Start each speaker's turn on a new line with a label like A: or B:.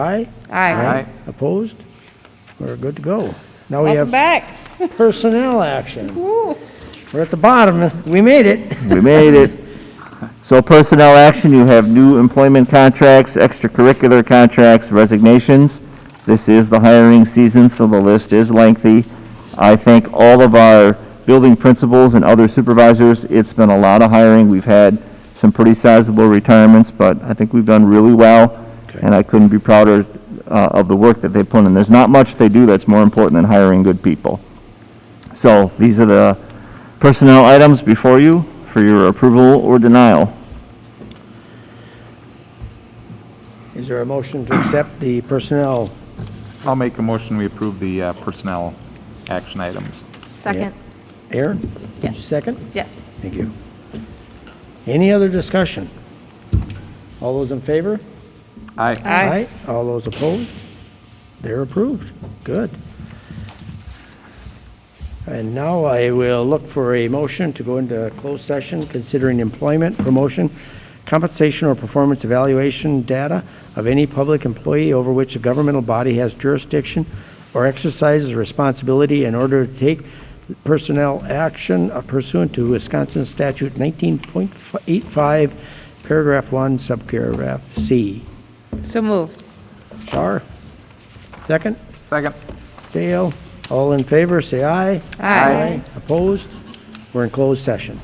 A: Aye?
B: Aye.
A: Opposed? We're good to go. Now we
B: Welcome
A: have
B: back.
A: personnel action.
B: Woo.
A: We're at the bottom, we made it.
C: We made it. So personnel action, you have new employment contracts, extracurricular contracts, resignations. This is the hiring season, so the list is lengthy. I thank all of our building principals and other supervisors. It's been a lot of hiring. We've had some pretty sizable retirements, but I think we've done really well, and I couldn't be prouder uh, of the work that they put in. There's not much they do that's more important than hiring good people. So these are the personnel items before you for your approval or denial.
A: Is there a motion to accept the personnel?
D: I'll make a motion, we approve the uh, personnel action items.
B: Second.
A: Aaron? Did you second?
B: Yes.
A: Thank you. Any other discussion? All those in favor?
D: Aye.
B: Aye.
A: All those opposed? They're approved. Good. And now I will look for a motion to go into closed session considering employment, promotion, compensation, or performance evaluation data of any public employee over which a governmental body has jurisdiction or exercises responsibility in order to take personnel action pursuant to Wisconsin Statute 19.85, Paragraph 1, Subparagraph C.
B: So moved.
A: Shar, second.
D: Second.
A: Dale, all in favor, say aye.
B: Aye.
A: Opposed? We're in closed session.